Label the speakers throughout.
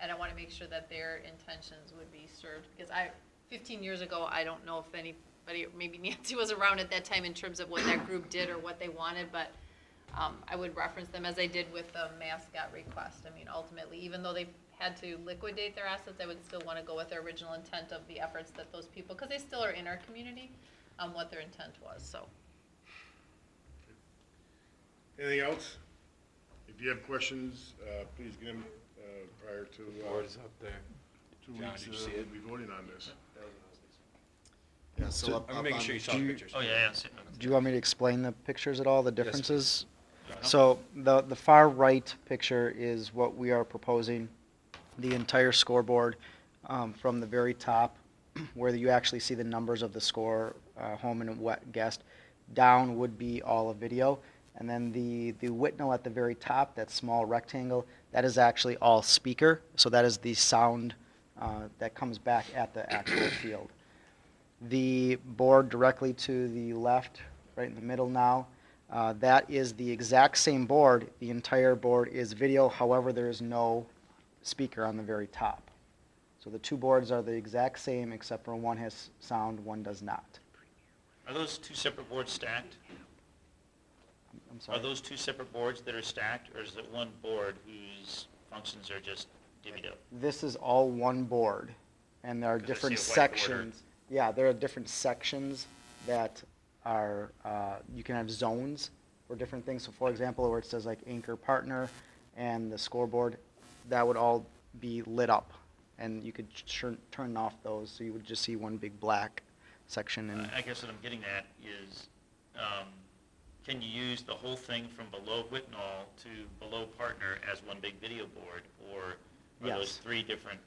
Speaker 1: and I wanna make sure that their intentions would be served, because I, fifteen years ago, I don't know if anybody, maybe Nancy was around at that time in terms of what that group did or what they wanted, but, um, I would reference them as I did with the mascot request, I mean, ultimately, even though they had to liquidate their assets, I would still wanna go with their original intent of the efforts that those people, because they still are in our community, um, what their intent was, so.
Speaker 2: Anything else? If you have questions, uh, please get them uh, prior to, uh,
Speaker 3: Board is up there.
Speaker 2: two
Speaker 3: John,
Speaker 2: weeks,
Speaker 3: did
Speaker 2: uh,
Speaker 3: you see
Speaker 2: we'll
Speaker 3: it?
Speaker 2: be voting on this.
Speaker 4: Yeah, so up,
Speaker 3: I'm
Speaker 4: up
Speaker 3: making
Speaker 4: on-
Speaker 3: sure you saw
Speaker 5: do
Speaker 3: the
Speaker 5: you-
Speaker 3: pictures.
Speaker 5: Oh, yeah, yeah. see-
Speaker 6: Do you want me to explain the pictures at all, the
Speaker 3: please.
Speaker 6: differences?
Speaker 3: No.
Speaker 6: So the, the far right picture is what we are proposing, the entire scoreboard, um, from the very top, where you actually see the numbers of the score, uh, home and wet guest, down would be all of video. And then the, the Whitnall at the very top, that small rectangle, that is actually all speaker, so that is the sound, uh, that comes back at the actual field the board directly to the left, right in the middle now. Uh, that is the exact same board. The entire board is video, however, there is no speaker on the very top. So the two boards are the exact same except for one has sound, one does not.
Speaker 5: Are those two separate boards stacked?
Speaker 6: I'm
Speaker 5: Are
Speaker 6: sorry.
Speaker 5: those two separate boards that are stacked, or is it one board whose functions are just divvied up?
Speaker 6: This is all one board and there are
Speaker 5: 'Cause I see
Speaker 6: different
Speaker 5: a white border.
Speaker 6: sections. Yeah, there are different sections that are, uh, you can have zones for different things. So for example, where it says like anchor partner and the scoreboard, that would all be lit up. And you could turn, turn off those, so you would just see one big black section and.
Speaker 5: I- I guess what I'm getting at is, um, can you use the whole thing from below Whitnall to below Partner as one big video board? Or are those
Speaker 6: Yes.
Speaker 5: three different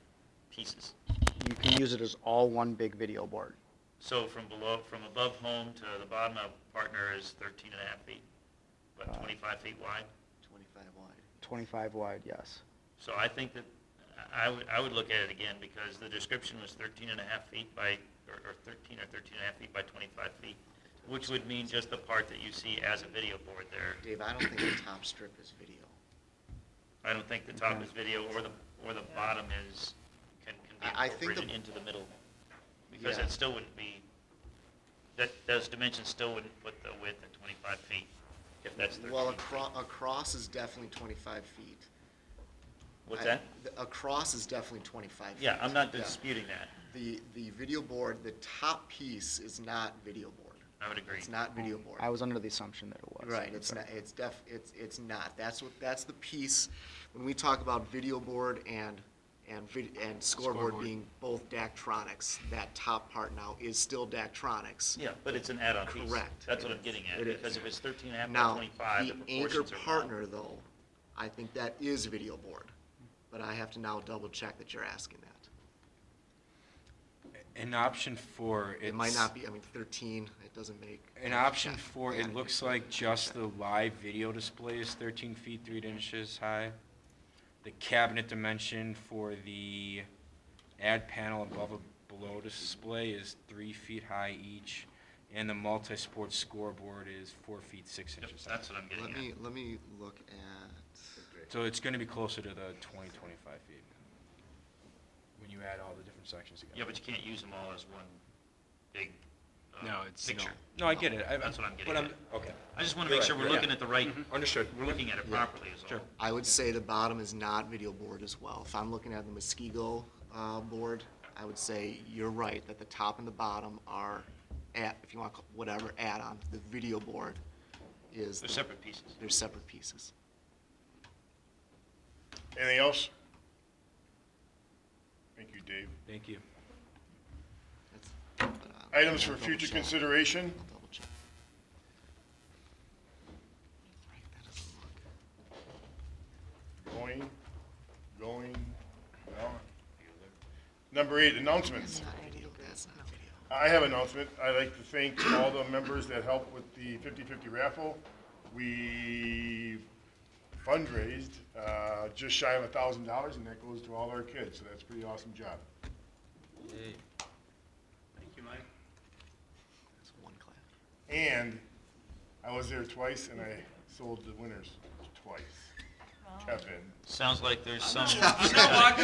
Speaker 5: pieces?
Speaker 6: You can use it as all one big video board.
Speaker 5: So from below, from above home to the bottom of Partner is 13 and a half feet,
Speaker 6: Uh,
Speaker 5: about 25 feet wide?
Speaker 4: Twenty-five wide.
Speaker 6: Twenty-five wide, yes.
Speaker 5: So I think that, I I would, I would look at it again, because the description was 13 and a half feet by, or or 13 or 13 and a half feet by 25 feet, which would mean just the part that you see as a video board there.
Speaker 4: Dave, I don't think the top strip is video.
Speaker 5: I don't think the top
Speaker 6: Okay.
Speaker 5: is video, or the, or the bottom is, can, can
Speaker 4: I-
Speaker 5: be
Speaker 4: I think the-
Speaker 5: incorporated into the middle, because
Speaker 4: Yeah.
Speaker 5: that still wouldn't be, that, those dimensions still wouldn't put the width at 25 feet, if that's 13
Speaker 4: Well,
Speaker 5: feet.
Speaker 4: across, across is definitely twenty-five feet.
Speaker 5: What's
Speaker 4: I-
Speaker 5: that?
Speaker 4: the- Across is definitely twenty-five.
Speaker 5: Yeah,
Speaker 4: feet.
Speaker 5: I'm not disputing that,
Speaker 4: The, the video board, the top piece is not video board.
Speaker 5: I would agree.
Speaker 4: It's not video board.
Speaker 6: I was under the assumption that it was.
Speaker 4: Right, it's not, it's def, it's, it's not. That's what, that's the piece, when we talk about video board and, and vid, and scoreboard
Speaker 3: Scoreboard.
Speaker 4: being both Daktronics, that top part now is still Daktronics.
Speaker 5: Yeah, but it's an add-on piece.
Speaker 4: Correct.
Speaker 5: That's what I'm getting at,
Speaker 4: It is.
Speaker 5: because if it's thirteen and a half by
Speaker 4: Now,
Speaker 5: twenty-five, the
Speaker 4: the anchor
Speaker 5: proportions are wrong.
Speaker 4: partner though, I think that is video board, but I have to now double check that you're asking that.
Speaker 3: An option four,
Speaker 4: It might
Speaker 3: it's-
Speaker 4: not be, I mean, thirteen, it doesn't make.
Speaker 3: An option for,
Speaker 4: Yeah.
Speaker 3: it looks like just the live video display is thirteen feet, three inches high. The cabinet dimension for the ad panel above and below display is three feet high each. And the multi-sport scoreboard is four feet, six
Speaker 5: Yep,
Speaker 3: inches high.
Speaker 5: That's what I'm
Speaker 4: Let
Speaker 5: getting
Speaker 4: me,
Speaker 5: at.
Speaker 4: let me look at.
Speaker 3: So it's gonna be closer to the twenty, twenty-five feet. When you add all the different sections together.
Speaker 5: Yeah, but you can't use them all as one big,
Speaker 3: No,
Speaker 5: uh,
Speaker 3: it's, no.
Speaker 5: picture.
Speaker 3: No, I get it. I-
Speaker 5: That's what I'm
Speaker 3: but
Speaker 5: getting at.
Speaker 3: Okay.
Speaker 5: I just wanna
Speaker 3: You're
Speaker 5: make
Speaker 3: right,
Speaker 5: sure we're
Speaker 3: yeah.
Speaker 5: looking at the right,
Speaker 3: Mm-hmm. Understood.
Speaker 5: we're looking at it
Speaker 4: Yeah.
Speaker 5: properly is all.
Speaker 3: Sure.
Speaker 4: I would say the bottom is not video board as well. If I'm looking at the Muskego uh, board, I would say you're right, that the top and the bottom are, at, if you want, to call whatever add-on, the video board is.
Speaker 5: They're
Speaker 4: the-
Speaker 5: separate pieces.
Speaker 4: They're separate pieces.
Speaker 2: Anything else? Thank you, Dave.
Speaker 3: Thank you.
Speaker 4: That's- uh, but I'll-
Speaker 2: Items
Speaker 4: I'll
Speaker 2: for future
Speaker 4: double-check.
Speaker 2: consideration?
Speaker 4: I'll double-check. Right, that doesn't look-
Speaker 2: Going, going, no. Number eight, announcements.
Speaker 4: That's not video, that's not video.
Speaker 2: I have an announcement. I'd like to thank all the members that helped with the 50-50 raffle. We fundraised uh, just shy of a thousand dollars, and that goes to all our kids, so that's a pretty awesome job.
Speaker 5: Thank you, Mike.
Speaker 4: That's one clap.
Speaker 2: And I was there twice, and I sold the winners twice. Kevin.
Speaker 5: Sounds like there's some.